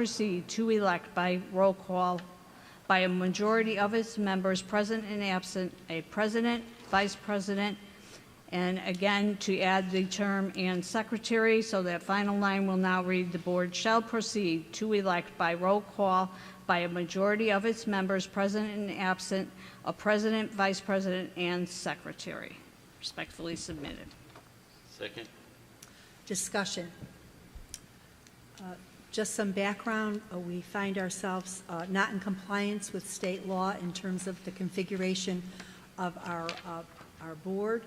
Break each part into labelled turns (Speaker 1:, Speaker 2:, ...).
Speaker 1: proceed to elect by roll call by a majority of its members present and absent, a president, vice president, and again, to add the term "and secretary," so that final line will now read, "The board shall proceed to elect by roll call by a majority of its members present and absent, a president, vice president, and secretary." Respectfully submitted.
Speaker 2: Second?
Speaker 3: Discussion. Uh, Just some background, uh, we find ourselves uh, not in compliance with state law in terms of the configuration of our, uh, our board,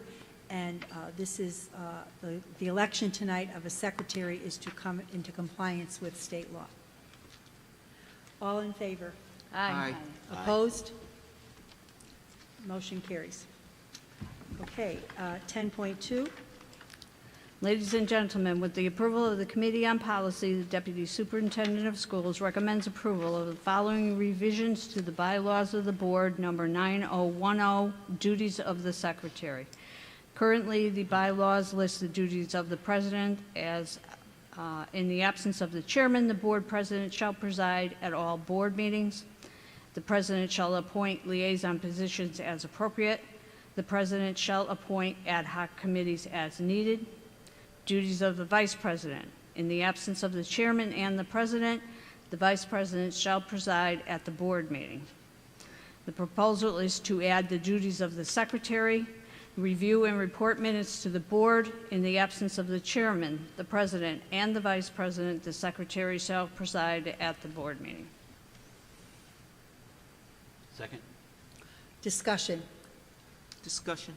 Speaker 3: and uh, this is, uh, the the election tonight of a secretary is to come into compliance with state law. All in favor?
Speaker 2: Aye.
Speaker 4: Aye.
Speaker 3: Opposed? Motion carries. Okay, uh, 10.2.
Speaker 1: Ladies and gentlemen, with the approval of the Committee on Policy, the Deputy Superintendent of Schools recommends approval of the following revisions to the bylaws of the Board, number 9010, oh, duties of the Secretary. Currently, the bylaws list the duties of the President as, uh, in the absence of the Chairman, the Board President shall preside at all Board meetings. The President shall appoint liaison positions as appropriate. The President shall appoint ad hoc committees as needed. Duties of the Vice President. In the absence of the Chairman and the President, the Vice President shall preside at the Board meeting. The proposal is to add the duties of the Secretary, review and report minutes to the Board. In the absence of the Chairman, the President, and the Vice President, the Secretary shall preside at the Board meeting.
Speaker 2: Second?
Speaker 3: Discussion.
Speaker 4: Discussion.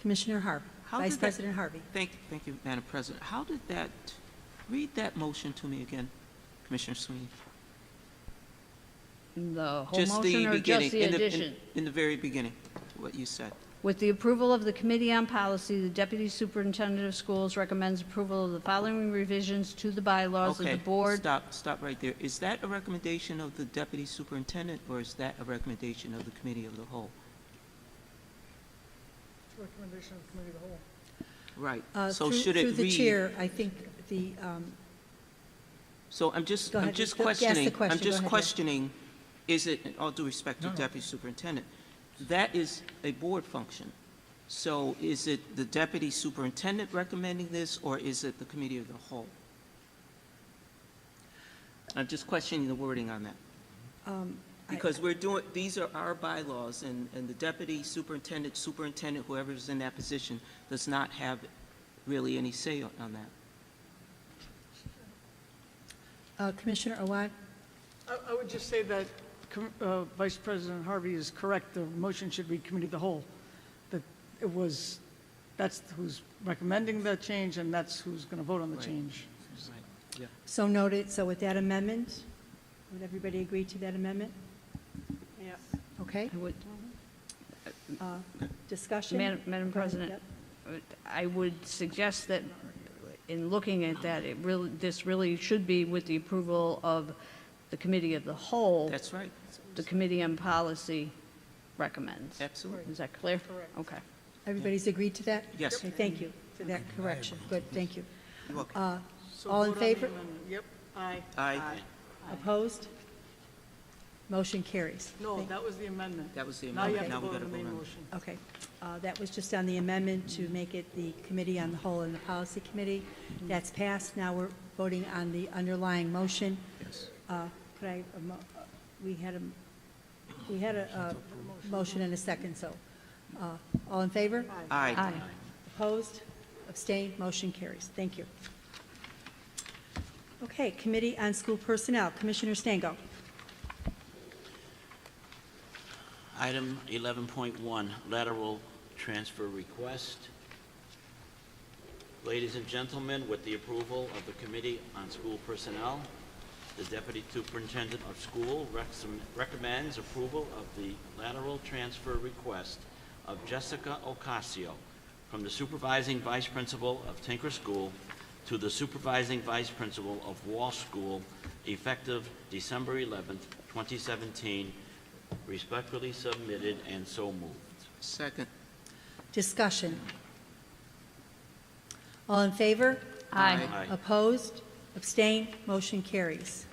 Speaker 3: Commissioner Harvey,
Speaker 4: How
Speaker 3: Vice
Speaker 4: did that-
Speaker 3: President Harvey.
Speaker 4: Thank, thank you, Madam President. How did that, read that motion to me again, Commissioner Sweeney?
Speaker 1: The whole
Speaker 4: Just the
Speaker 1: motion or
Speaker 4: beginning,
Speaker 1: just the
Speaker 4: in in-
Speaker 1: addition?
Speaker 4: In the very beginning, what you said.
Speaker 1: With the approval of the Committee on Policy, the Deputy Superintendent of Schools recommends approval of the following revisions to the bylaws of the
Speaker 4: Okay,
Speaker 1: Board.
Speaker 4: Stop, stop right there. Is that a recommendation of the deputy superintendent, or is that a recommendation of the committee of the whole?
Speaker 5: Recommendation of committee of the whole.
Speaker 4: Right.
Speaker 3: Uh,
Speaker 4: So
Speaker 3: through-
Speaker 4: should it read?
Speaker 3: Through the chair, I think the, um,
Speaker 4: So I'm just,
Speaker 3: Go
Speaker 4: I'm
Speaker 3: ahead.
Speaker 4: just
Speaker 3: Go- yes, the
Speaker 4: questioning,
Speaker 3: question.
Speaker 4: I'm
Speaker 3: Go
Speaker 4: just
Speaker 3: ahead, yeah.
Speaker 4: questioning, is it, in all due respect to Deputy Superintendent, that is a board function. So is it the Deputy Superintendent recommending this, or is it the Committee of the Whole? I'm just questioning the wording on that.
Speaker 3: um, I-
Speaker 4: Because we're doing, these are our bylaws, and, and the deputy superintendent, superintendent, whoever's in that position, does not have really any say on on that.
Speaker 3: uh, Commissioner Awad,
Speaker 5: I, I would just say that Com- uh, Vice President Harvey is correct. The motion should read committee of the whole. That it was, that's who's recommending the change and that's who's going to vote on the
Speaker 4: Right.
Speaker 5: change.
Speaker 3: so noted. So with that amendment, would everybody agree to that amendment?
Speaker 5: Yeah.
Speaker 3: Okay,
Speaker 1: I would-
Speaker 3: uh, discussion?
Speaker 1: Madam Madam
Speaker 3: Go ahead,
Speaker 1: President,
Speaker 3: yep.
Speaker 1: I would suggest that in looking at that, it really, this really should be with the approval of the Committee of the Whole.
Speaker 4: That's right,
Speaker 1: The Committee on Policy recommends.
Speaker 4: absolutely.
Speaker 1: Is that clear?
Speaker 5: Correct.
Speaker 1: Okay.
Speaker 3: Everybody's agreed to that?
Speaker 4: Yes.
Speaker 3: Okay, thank you for that correction. Good, thank you.
Speaker 4: You're welcome.
Speaker 3: Uh,
Speaker 5: So
Speaker 3: All in
Speaker 5: vote on the
Speaker 3: favor?
Speaker 5: amendment. Yep, aye.
Speaker 4: Aye.
Speaker 3: Opposed? Motion carries.
Speaker 5: No,
Speaker 3: Thank-
Speaker 5: that was the amendment.
Speaker 4: That was the
Speaker 5: Now you
Speaker 4: amendment.
Speaker 5: have to
Speaker 4: Now we
Speaker 5: vote on
Speaker 4: gotta
Speaker 5: the
Speaker 4: vote
Speaker 5: main
Speaker 4: on-
Speaker 5: motion.
Speaker 3: Okay, Uh, that was just on the amendment to make it the Committee on the Whole and the Policy Committee. That's passed, now we're voting on the underlying motion.
Speaker 4: Yes.
Speaker 3: Uh, Could I, a mo- uh, we had a, we had a a motion and a second, so, uh, all in favor?
Speaker 4: Aye.
Speaker 1: Aye.
Speaker 3: Opposed? Abstained? Motion carries. Thank you. Okay, Committee on School Personnel, Commissioner Stango.
Speaker 2: Item 11.1, lateral transfer request. Ladies and gentlemen, with the approval of the Committee on School Personnel, the Deputy Superintendent of School rex- recommends approval of the lateral transfer request of Jessica Ocasio from the Supervising Vice Principal of Tinker School to the Supervising Vice Principal of Wall School effective December 11th, 2017, Respectfully submitted and so moved.
Speaker 4: Second.
Speaker 3: Discussion. All in favor?
Speaker 4: Aye.
Speaker 3: Opposed? Abstained? Motion carries.